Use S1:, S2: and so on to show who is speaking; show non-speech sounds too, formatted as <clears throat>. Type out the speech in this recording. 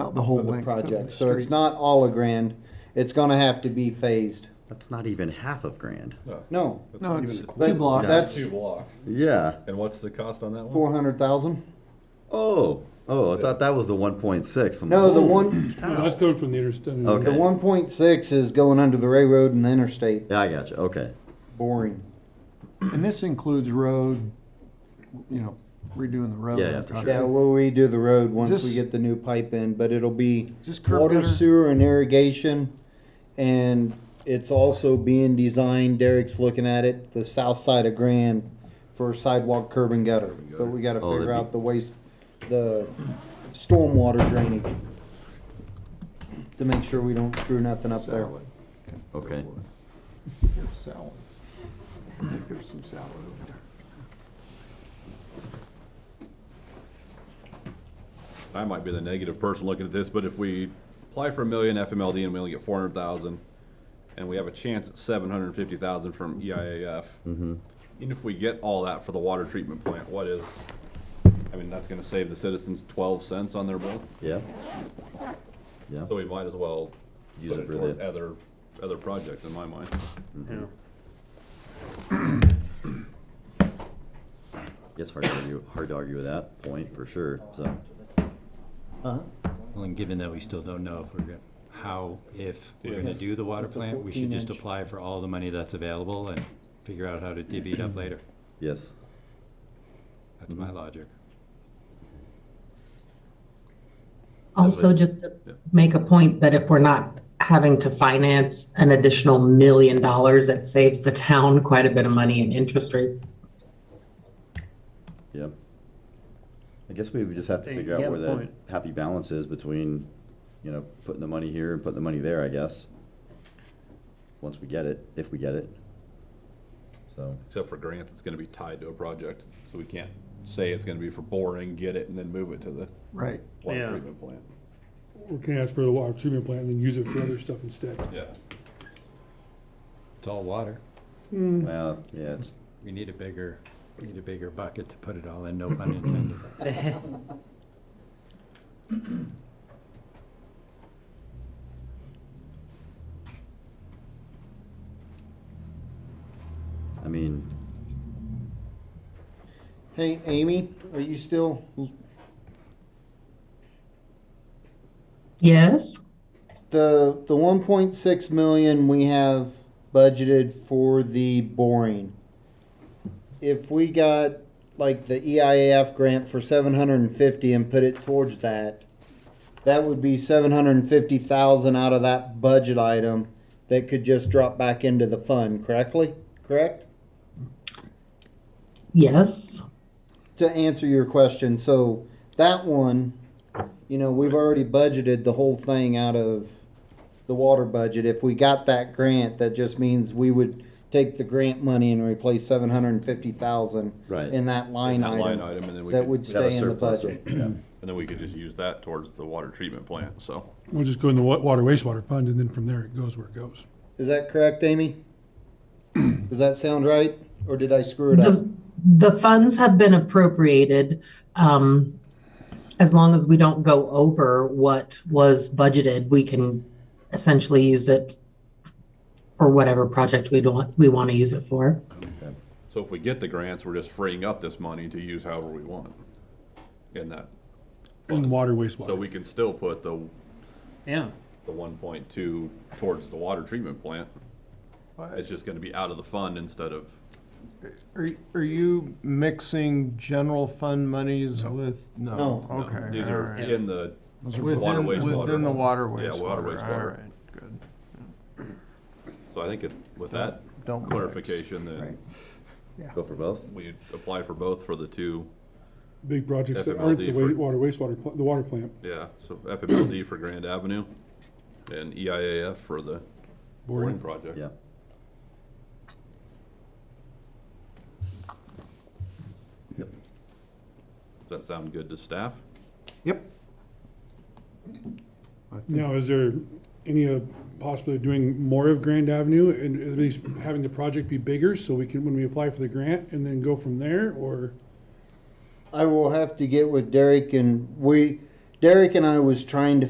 S1: out the whole
S2: for the
S1: length of the
S2: project. So it's
S1: street.
S2: not all a grand. It's gonna have to be phased.
S3: That's not even half of grand.
S2: No,
S1: No,
S4: even
S1: it's
S4: the-
S1: two
S2: But
S1: blocks.
S2: that's-
S4: Two blocks.
S3: Yeah.
S4: And what's the cost on that one?
S2: four hundred thousand?
S3: Oh, oh, I thought that was the 1.6. I'm
S2: No, the
S3: like,
S2: one,
S5: No, that's coming from the uh, interstate.
S2: the
S3: Okay.
S2: one point six is going under the railroad and the interstate.
S3: Yeah, I got you. Okay.
S2: Boring.
S1: And this includes road, you know, redoing the road.
S3: Yeah, yeah,
S1: on
S3: for
S1: top.
S3: sure.
S2: Yeah, we'll redo the road once we
S1: this-
S2: get the new pipe in, but it'll be
S1: Is this curb
S2: water,
S1: gutter?
S2: sewer, and irrigation. And it's also being designed, Derek's looking at it, the south side of Grand for sidewalk curb and gutter. But we gotta
S3: Oh,
S2: figure
S3: that'd
S2: out the waste, the stormwater drainage to make sure we don't screw nothing up there.
S6: Salad.
S3: Okay.
S6: Here's salad. Here's some salad over there.
S4: I might be the negative person looking at this, but if we apply for a million FMLD and we only get four hundred thousand, and we have a chance at seven hundred and fifty thousand from E EIAF, even if we get all that for the water treatment plant, what is? I mean, that's gonna save the citizens twelve cents on their bill,
S3: Yeah. Yeah.
S4: so we might as well
S3: Use
S4: use
S3: it
S4: it
S3: for the-
S4: towards other, other projects in my mind.
S3: It's hard to argue, hard to argue with that point for sure. So,
S7: Well, and given that we still don't know if we're gonna, how, if we're gonna do the water
S2: That's a
S7: plant, we should just
S2: 14 inch.
S7: apply for all the money that's available and figure out how to divvy
S2: <clears throat>
S7: it up later.
S3: yes.
S7: That's
S2: Mm-hmm.
S7: my logic.
S8: Also, just to make a point that if we're not having to finance an additional million dollars, it saves the town quite a bit of money in interest rates.
S3: Yeah. I guess we would just have to figure out where that happy balance is between, you know, putting the money here and putting the money there, I guess. Once we get it, if we get it. So,
S4: Except for grants, it's gonna be tied to a project, so we can't say it's gonna be for boring, get it, and then move it to the
S1: Right.
S4: water treatment plant.
S5: We can ask for the water treatment plant and then use it for other stuff instead.
S4: Yeah,
S7: It's all water.
S3: well, yeah, it's,
S7: We need a bigger, we need a bigger bucket to put it all in, no pun intended.
S2: <clears throat>
S3: I mean,
S2: Hey, Amy, are you still,
S8: Yes?
S2: the, the one point six million we have budgeted for the boring. If we got like the E EIAF grant for seven hundred and fifty and put it towards that, that would be seven hundred and fifty thousand out of that budget item that could just drop back into the fund, correctly, correct?
S8: Yes.
S2: to answer your question, so that one, you know, we've already budgeted the whole thing out of the water budget. If we got that grant, that just means we would take the grant money and replace seven hundred and fifty thousand
S3: Right.
S2: in that line
S4: that line
S2: item
S4: item, and then we
S2: that
S4: could,
S2: would
S3: have a
S2: stay in the
S3: surplus
S2: budget.
S4: and then we could just use that towards the water treatment plant, so.
S5: We'll just go in the wa- water wastewater fund and then from there it goes where it goes.
S2: Is that correct, Amy? Does that sound right? Or did I screw it up?
S8: The, the funds have been appropriated, um, as long as we don't go over what was budgeted, we can essentially use it for whatever project we don't, we want to use it for.
S4: So if we get the grants, we're just freeing up this money to use however we want in that.
S5: In water
S4: So
S5: wastewater.
S4: we can still put the. Yeah. The one point two towards the water treatment plant. It's just gonna be out of the fund instead of,
S9: Are, are you mixing general fund monies with, no?
S2: No.
S4: no,
S9: Okay.
S4: these are
S9: all right.
S4: in the
S9: Within-
S4: water wastewater.
S9: Within the water
S4: Yeah,
S9: wastewater.
S4: water
S9: All
S4: wastewater.
S9: right, good.
S4: So I think it- with that
S9: Don't mix.
S4: clarification, that
S3: go for both.
S4: we apply for both for the two,
S5: Big projects that aren't the
S4: FMLD
S5: wa-
S4: for-
S5: water wastewater, pla- the water plant,
S4: yeah, so FMLD for Grand Avenue and E EIAF for the boarding
S5: boring.
S4: project.
S3: Yeah.
S4: Does that sound good to staff?
S2: Yep.
S5: Now, is there any uh, possibility of doing more of Grand Avenue and at least having the project be bigger so we can, when we apply for the grant and then go from there or?
S2: I will have to get with Derek and we, Derek and I was trying to